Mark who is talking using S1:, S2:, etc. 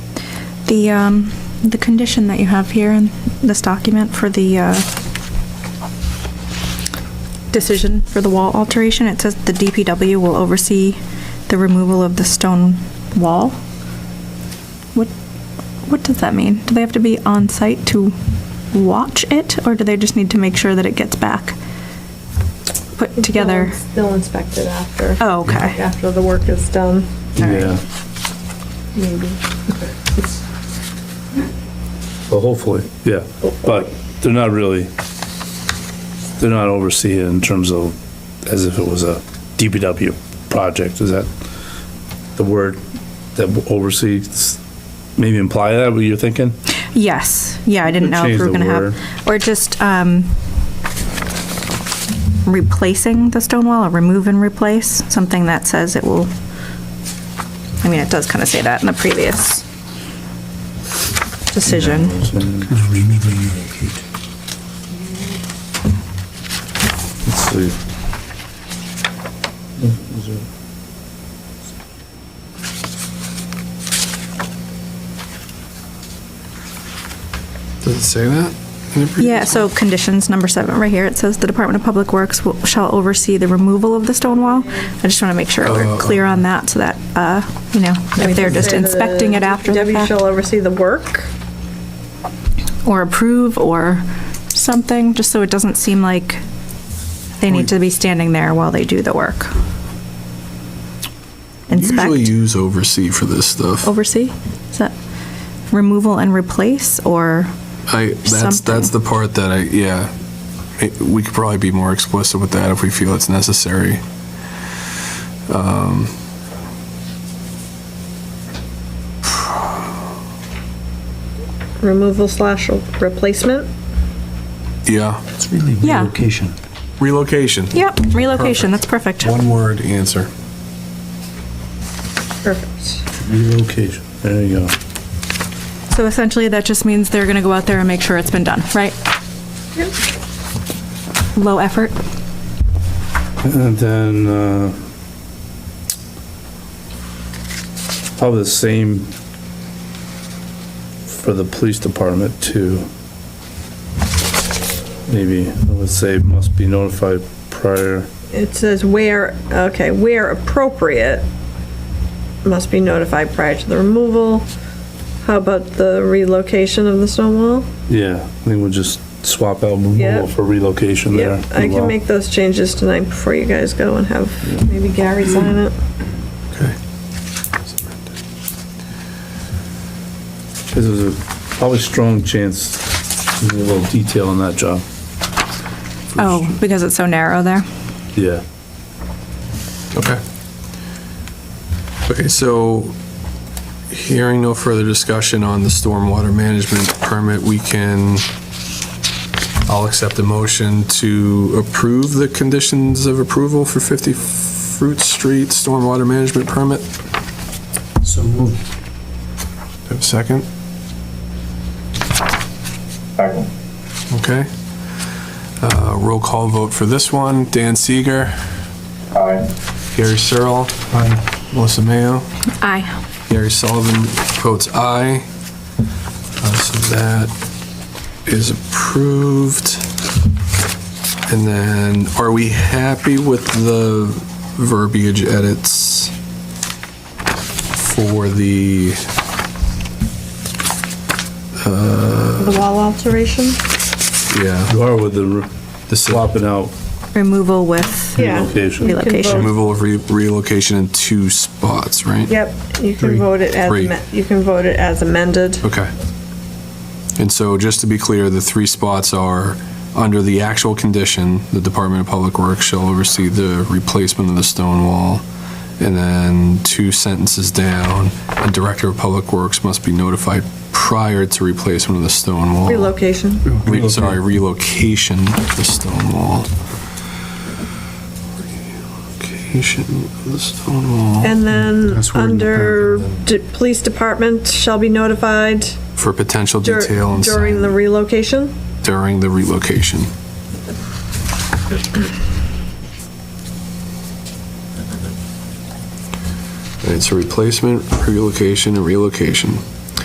S1: the, um, the condition that you have here in this document for the, uh, decision for the wall alteration, it says the DPW will oversee the removal of the stone wall. What, what does that mean? Do they have to be on site to watch it, or do they just need to make sure that it gets back put together?
S2: They'll inspect it after.
S1: Oh, okay.
S2: After the work is done,
S1: Yeah.
S2: maybe.
S3: Well, hopefully, yeah. But they're not really, they're not overseeing in terms of, as if it was a DPW project, is that the word that oversees, maybe imply that, what you're thinking?
S1: Yes, yeah, I didn't know if
S3: Change
S1: we were
S3: the
S1: gonna
S3: word.
S1: have, or just, um, replacing the stone wall, or remove and replace, something that says it will, I mean, it does kind of say that in the previous decision.
S3: Let's see.
S4: Does it say that? in the previous
S1: Yeah, so conditions number seven, right here, it says the Department of Public Works will- shall oversee the removal of the stone wall. I just want to make sure we're
S4: Oh.
S1: clear on that, so that, uh, you know, if they're just inspecting it after the
S2: DPW
S1: fact.
S2: shall oversee the work.
S1: or approve or something, just so it doesn't seem like they need to be standing there while they do the work.
S4: Usually
S1: Inspect,
S4: use oversee for this stuff.
S1: oversee, is that removal and replace, or,
S4: I, that's,
S1: something.
S4: that's the part that I, yeah. It- We could probably be more explicit with that if we feel it's necessary. Um,
S2: Removal slash replacement.
S4: Yeah,
S5: It's really
S1: Yeah.
S5: relocation.
S4: relocation.
S1: yep, relocation, that's perfect.
S4: One word answer.
S2: Perfect.
S3: Relocation, there you go.
S1: So essentially, that just means they're gonna go out there and make sure it's been done, right?
S2: Yep.
S1: Low effort,
S3: And then, uh, probably the same for the police department too. Maybe, I would say must be notified prior,
S2: It says where, okay, where appropriate must be notified prior to the removal. How about the relocation of the stone wall?
S3: yeah, I think we'll just swap out
S2: Yeah.
S3: removal for relocation there.
S2: Yep, I can make those changes tonight before you guys go and have maybe Gary sign it.
S4: Okay.
S3: Cause there's a probably strong chance, of a little detail on that job,
S1: oh, because it's so narrow there.
S3: yeah.
S4: Okay. Okay, so hearing no further discussion on the stormwater management permit, we can, I'll accept a motion to approve the conditions of approval for 50 Fruit Street stormwater management permit. Do
S5: So moved.
S4: I have a second? Okay. Uh, Roll call vote for this one. Dan Seeger. Aye. Gary Searle. Aye. Melissa Mayo.
S1: Aye.
S4: Gary Sullivan votes aye. Uh, So that is approved. And then, are we happy with the verbiage edits for the,
S2: The wall alteration?
S4: yeah,
S3: You are with the re-
S4: the swap
S3: swapping out
S1: Removal with
S2: Yeah.
S3: relocation.
S1: relocation.
S4: removal of re- relocation in two spots, right?
S2: Yep, you can vote it as,
S4: Three.
S2: amen- you can vote it as amended.
S4: Okay. And so just to be clear, the three spots are under the actual condition, the Department of Public Works shall oversee the replacement of the stone wall. And then two sentences down, the Director of Public Works must be notified prior to replacement of the stone wall.
S2: Relocation.
S4: Re- Sorry, relocation of the stone wall. Relocation of the stone wall
S2: And then,
S4: That's where in the
S2: under
S4: paragraph,
S2: d- police department shall be notified
S4: for potential
S2: dur-
S4: detail and
S2: during the
S4: sign-
S2: relocation.
S4: during the relocation. It's a replacement, relocation, and relocation.